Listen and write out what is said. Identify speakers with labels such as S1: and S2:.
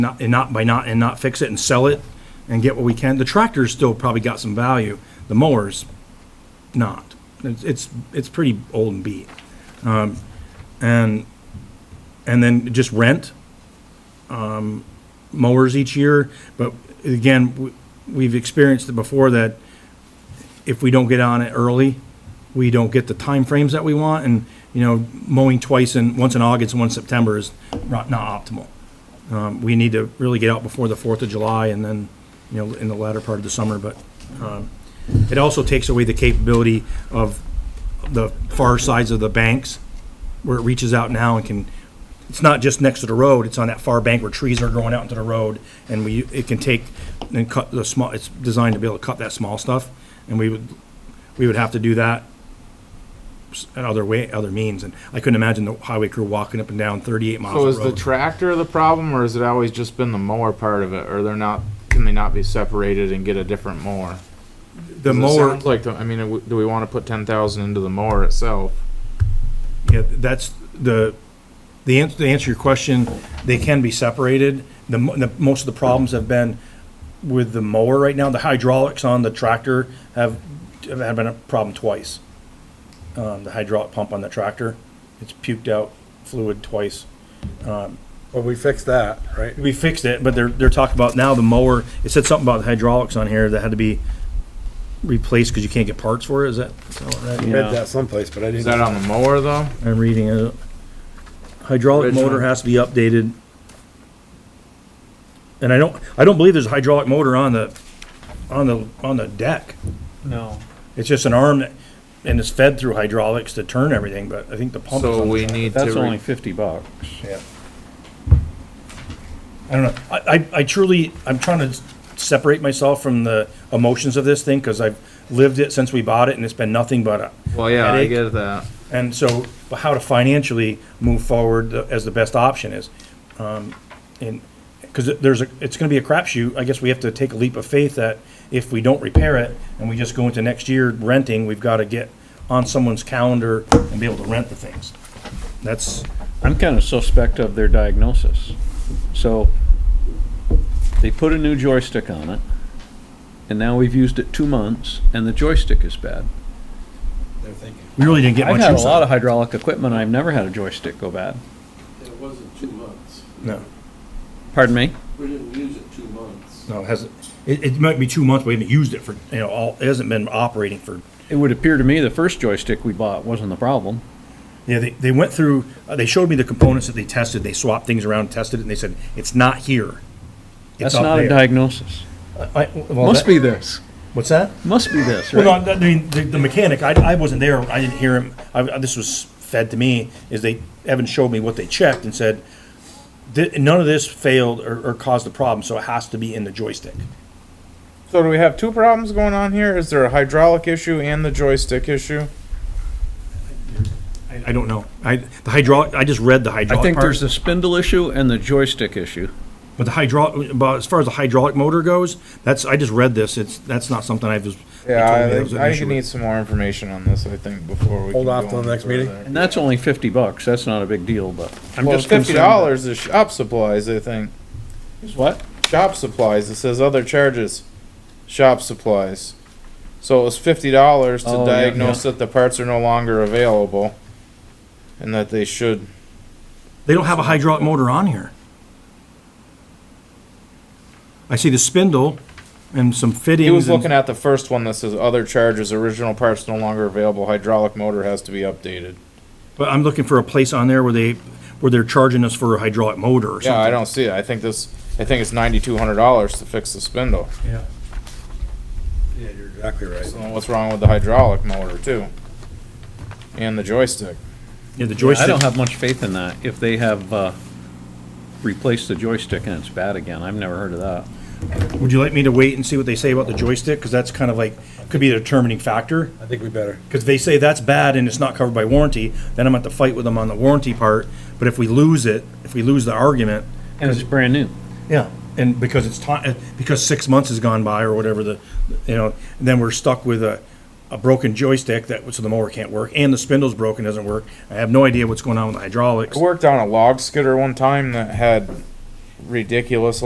S1: not, and not, by not, and not fix it and sell it and get what we can. The tractor's still probably got some value, the mower's not. It's, it's, it's pretty old and beat. Um, And, and then just rent, um, mowers each year, but again, we- we've experienced it before that if we don't get on it early, we don't get the timeframes that we want, and, you know, mowing twice in, once in August and once in September is not, not optimal. Um, we need to really get out before the Fourth of July and then, you know, in the latter part of the summer, but, um, it also takes away the capability of the far sides of the banks, where it reaches out now and can, it's not just next to the road, it's on that far bank where trees are growing out into the road, and we, it can take and cut the small, it's designed to be able to cut that small stuff, and we would, we would have to do that s- in other way, other means, and I couldn't imagine the highway crew walking up and down thirty-eight miles of
S2: So
S1: road.
S2: Oh, is the tractor the problem, or has it always just been the mower part of it, or they're not, can they not be separated and get a different mower?
S1: The
S2: 'Cause it
S1: mower,
S2: sounds Like, the- I mean, w- do we wanna put ten thousand into the mower itself?
S1: yeah, that's the, the answer, to answer your question, they can be separated. The, mo- the, most of the problems have been with the mower right now. The hydraulics on the tractor have, have been a problem twice. Um, the hydraulic pump on the tractor, it's puked out fluid twice.
S3: Well, we fixed that, right?
S1: We fixed it, but they're, they're talking about now the mower, it said something about the hydraulics on here that had to be replaced because you can't get parts for it, is that? is that what I read?
S3: We had that someplace, but I
S2: Is that
S3: didn't.
S2: on the mower though?
S1: I'm reading it. Hydraulic
S2: Which
S1: motor
S2: one?
S1: has to be updated. And I don't, I don't believe there's a hydraulic motor on the, on the, on the deck.
S4: No.
S1: It's just an arm that, and it's fed through hydraulics to turn everything, but I think the pump is
S2: So
S1: on the
S2: we
S1: back.
S2: need
S4: That's
S2: to,
S4: only
S2: re-
S4: fifty bucks.
S1: I don't know. I, I- I truly, I'm trying to s- separate myself from the emotions of this thing because I've lived it since we bought it and it's been nothing but a,
S2: well, yeah, I
S1: headache.
S2: get that.
S1: And so, but how to financially move forward as the best option is. Um, And, because there's a, it's gonna be a crapshoot, I guess we have to take a leap of faith that if we don't repair it and we just go into next year renting, we've gotta get on someone's calendar and be able to rent the things. That's,
S4: I'm kind of suspect of their diagnosis. So they put a new joystick on it, and now we've used it two months, and the joystick is bad.
S1: we really didn't get
S4: I've
S1: much
S4: had a
S1: use
S4: lot
S1: out
S4: of hydraulic equipment. I've never had a joystick go bad.
S5: It wasn't two months.
S1: of No,
S4: Pardon me?
S5: We didn't use it two months.
S1: no, it hasn't, it, it might be two months, we haven't used it for, you know, all, it hasn't been operating for
S4: It would appear to me the first joystick we bought wasn't the problem.
S1: Yeah, they, they went through, uh, they showed me the components that they tested, they swapped things around, tested it, and they said, it's not here. It's
S4: That's
S1: up
S4: not a
S1: there."
S4: diagnosis.
S1: I- well,
S4: Must
S1: that-
S4: be this.
S1: What's that?
S4: Must be this,
S1: Well,
S4: right?
S1: no, I mean, the, the mechanic, I, I wasn't there, I didn't hear him, I, this was fed to me, is they, Evan showed me what they checked and said, "Th- none of this failed or, or caused a problem, so it has to be in the joystick.
S2: So do we have two problems going on here? Is there a hydraulic issue and the joystick issue?
S1: I, I don't know, I, the hydraulic, I just read the
S4: I
S1: hydraulic
S4: think there's
S1: part,
S4: the spindle issue and the joystick issue.
S1: but the hydraulic, but as far as the hydraulic motor goes, that's, I just read this, it's, that's not something I was. they told me
S2: Yeah,
S1: that
S2: I
S1: was
S2: think,
S1: an
S2: I
S1: issue
S2: think
S1: with.
S2: we need some more information on this, I think, before we.
S3: Hold
S2: can
S3: off
S2: go
S3: till
S2: any
S3: the next meeting?
S2: further.
S4: And that's only fifty bucks. That's not a big deal, but I'm
S2: Well,
S4: just
S2: fifty
S4: concerned. that-
S2: dollars is shop supplies, I think.
S4: What?
S2: Shop supplies, it says other charges, shop supplies. So it was fifty dollars
S4: Oh,
S2: to
S4: yeah,
S2: diagnose that the parts are no longer available. And that they should,
S1: They don't have a hydraulic motor on here. I see the spindle and some fittings.
S2: he was
S1: and-
S2: looking at the first one that says other charges, original parts no longer available, hydraulic motor has to be updated.
S1: But I'm looking for a place on there where they, where they're charging us for a hydraulic motor or
S2: Yeah, I
S1: something.
S2: don't see it, I think this, I think it's ninety-two hundred dollars to fix the spindle.
S1: Yeah.
S3: Yeah, you're exactly right.
S2: So what's wrong with the hydraulic motor too? And the joystick.
S1: Yeah, the
S4: I
S1: joystick,
S4: don't have much faith in that. If they have, uh, replaced the joystick and it's bad again, I've never heard of that.
S1: would you like me to wait and see what they say about the joystick? Because that's kind of like, could be a determining factor.
S3: I think we better.
S1: Because they say that's bad and it's not covered by warranty, then I'm at to fight with them on the warranty part. But if we lose it, if we lose the argument,
S4: And it's brand new.
S1: Yeah, and because it's time, because six months has gone by or whatever the, you know, and then we're stuck with a, a broken joystick that, so the mower can't work, and the spindle's broken, doesn't work. I have no idea what's going on with the hydraulics.
S2: I worked on a log skidder one time that had ridiculous